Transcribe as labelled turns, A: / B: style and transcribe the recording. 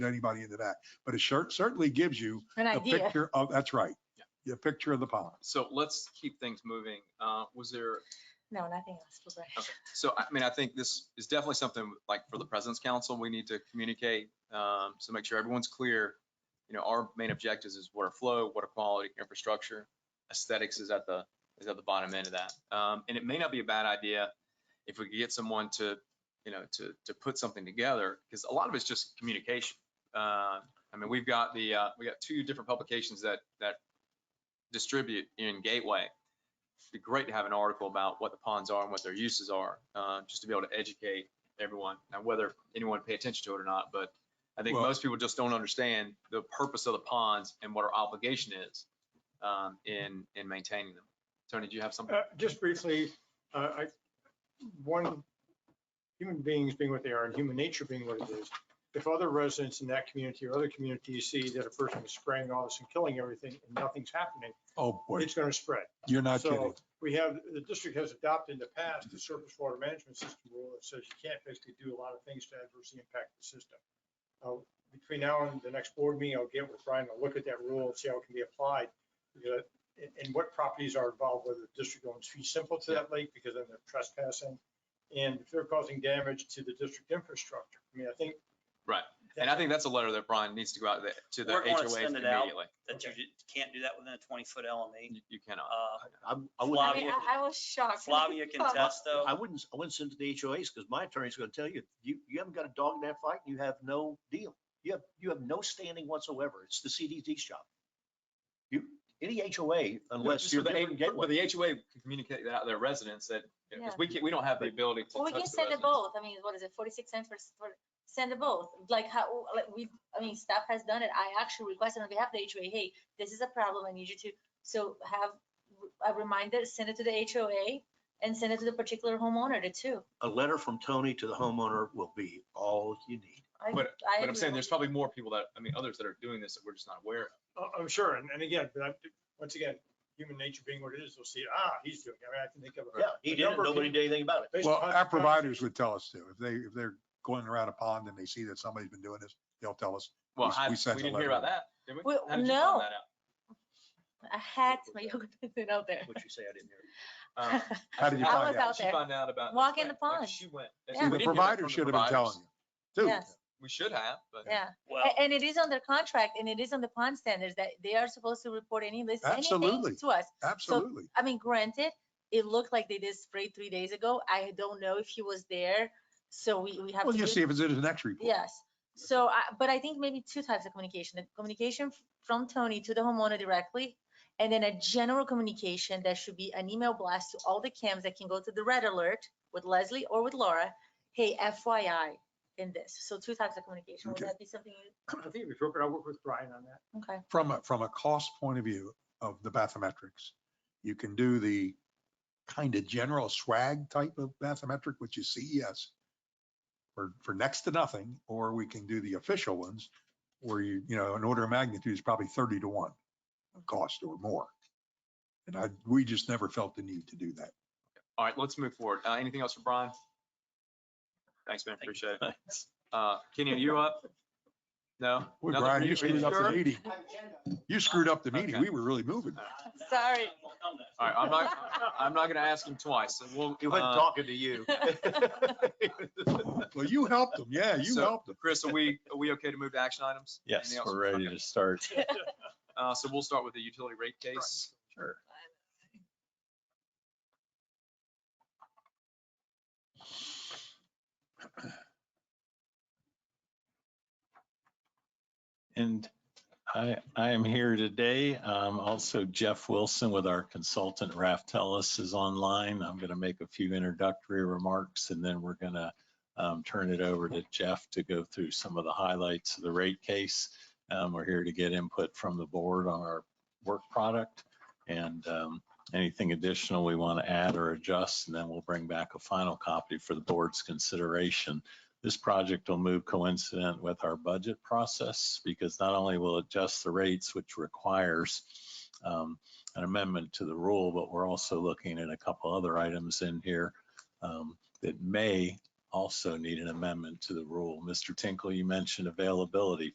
A: anybody into that. But a shirt certainly gives you
B: An
A: a
B: idea.
A: picture of, that's right,
C: Yeah.
A: a picture of the pond.
C: So let's keep things moving. Uh, was there,
B: No, nothing else. was there.
C: okay, so I mean, I think this is definitely something like for the President's Council, we need to communicate. Um, so make sure everyone's clear. You know, our main objectives is water flow, water quality, infrastructure. Aesthetics is at the, is at the bottom end of that. Um, and it may not be a bad idea if we could get someone to, you know, to, to put something together, because a lot of it's just communication. Uh, I mean, we've got the, uh, we got two different publications that, that distribute in Gateway. It'd be great to have an article about what the ponds are and what their uses are, uh, just to be able to educate everyone. Now, whether anyone pay attention to it or not, but I think
A: Well-
C: most people just don't understand the purpose of the ponds and what our obligation is, um, in, in maintaining them. Tony, do you have something?
D: Uh, Just briefly, uh, I, one, human beings being what they are and human nature being what it is. If other residents in that community or other communities see that a person is spraying all this and killing everything and nothing's happening,
A: Oh, boy,
D: it's going to spread.
A: you're not
D: so-
A: kidding.
D: We have, the district has adopted in the past the surface water management system rule that says you can't basically do a lot of things to adversely impact the system. Uh, Between now and the next board meeting, I'll get with Brian, I'll look at that rule and see how it can be applied. because- And, and what properties are involved, whether the district owns fee simple to that lake because then they're trespassing. And if they're causing damage to the district infrastructure, I mean, I think.
C: Right. And I think that's a letter that Brian needs to go out to the
E: We're gonna
C: HOAs
E: send it out.
C: immediately.
E: that you ju- can't do that within a twenty foot LME.
C: You- You cannot.
E: Uh,
F: I, I
B: I
E: Flavia
F: wouldn't,
B: mean,
E: Flavia-
B: I I was shocked.
E: Flavia can test though.
F: I wouldn't, I wouldn't send it to the HOAs because my attorney's going to tell you, you, you haven't got a dog in that fight. You have no deal. You have, you have no standing whatsoever. It's the CDD's job. You, any HOA, unless
C: Just
F: you're
C: for the
F: different
C: H- But
F: gateway.
C: the HOA can communicate that out to their residents that, because
B: Yeah.
C: we can't, we don't have the ability to.
B: Well, we
C: touch
B: can
C: the
B: send it
C: residents.
B: both. I mean, what is it, forty-six cents for, s- for, send it both. Like how, like we, I mean, staff has done it. I actually requested on behalf of the HOA, hey, this is a problem. I need you to, so have a reminder, send it to the HOA and send it to the particular homeowner to too.
F: A letter from Tony to the homeowner will be all you need.
B: I-
C: But-
B: I
C: But I'm
B: agree
C: saying
B: with
C: there's
B: you.
C: probably more people that, I mean, others that are doing this that we're just not aware of.
D: I- I'm sure, and, and again, but I'm, once again, human nature being what it is, they'll see, ah, he's doing, it." I mean, I can think of. a-
F: Yeah, he
D: a
F: did. it.
D: number of
F: Nobody
D: people-
F: did anything about it.
D: based
A: Well,
D: upon
A: our
D: the-
A: providers would tell us to. If they, if they're going around a pond and they see that somebody's been doing this, they'll tell us.
C: Well,
A: We-
C: I,
A: we
C: we
A: sent a
C: didn't hear
A: letter.
C: about that, did we?
B: We-
C: How did you find
B: no.
C: that out?
B: I had my yoga pants out there.
F: What you say, I didn't hear. it.
C: Uh,
A: How did you
C: I-
A: find
B: was
A: out?
B: out
C: she
B: there.
C: found out about.
B: Walk in the
C: like,
B: pond.
C: She went.
B: See,
C: And
A: See,
C: we
A: the
C: didn't hear that
A: provider
C: from the
A: should have been
C: providers.
A: telling you. Dude,
B: Yes,
C: We should have, but.
B: yeah.
E: Well,
B: A- And it is under contract and it is on the pond standards that they are supposed to report any list, anything
A: Absolutely.
B: to us.
A: absolutely.
B: I mean, granted, it looked like they did spray three days ago. I don't know if he was there, so we, we have to.
A: Well, you
B: do-
A: see if it's in the next report.
B: Yes. So I, but I think maybe two types of communication, the communication f- from Tony to the homeowner directly. And then a general communication that should be an email blast to all the cams that can go to the red alert with Leslie or with Laura. Hey, FYI in this. So two types of communication. Would
A: Okay.
B: that be something? you-
D: I think it'd be appropriate, I'll work with Brian on that.
B: Okay.
A: from a, from a cost point of view of the bathymetrics, you can do the kind of general swag type of bathymetric, which is CES for, for next to nothing, or we can do the official ones where you, you know, an order of magnitude is probably thirty to one cost or more. And I, we just never felt the need to do that.
C: All right, let's move forward. Uh, anything else for Brian? Thanks, man. Appreciate it. Uh, Kenny, are you up? No?
A: Boy,
C: Nothing
A: Brian,
C: for
A: you
C: Are
A: screwed up the
C: sure?
A: meeting. You screwed up the meeting.
C: Okay.
A: We were really moving.
B: Sorry.
C: All right, I'm not, I'm not gonna ask him twice. so We'll.
F: He wasn't
C: uh,
F: talking to you.
A: Well, you helped them. Yeah, you
C: So-
A: helped them.
C: Chris, are we, are we okay to move to action items?
G: Yes,
C: Anything else?
G: we're ready
C: Okay.
G: to start.
C: Uh, so we'll start with the utility rate case.
G: Sure. And I, I am here today. Um, also Jeff Wilson with our consultant Raftellus is online. I'm going to make a few introductory remarks and then we're going to um, turn it over to Jeff to go through some of the highlights of the rate case. Um, we're here to get input from the board on our work product and um, anything additional we want to add or adjust, and then we'll bring back a final copy for the board's consideration. This project will move coincident with our budget process because not only will it adjust the rates, which requires um, an amendment to the rule, but we're also looking at a couple other items in here um, that may also need an amendment to the rule. Mr. Tinkle, you mentioned availability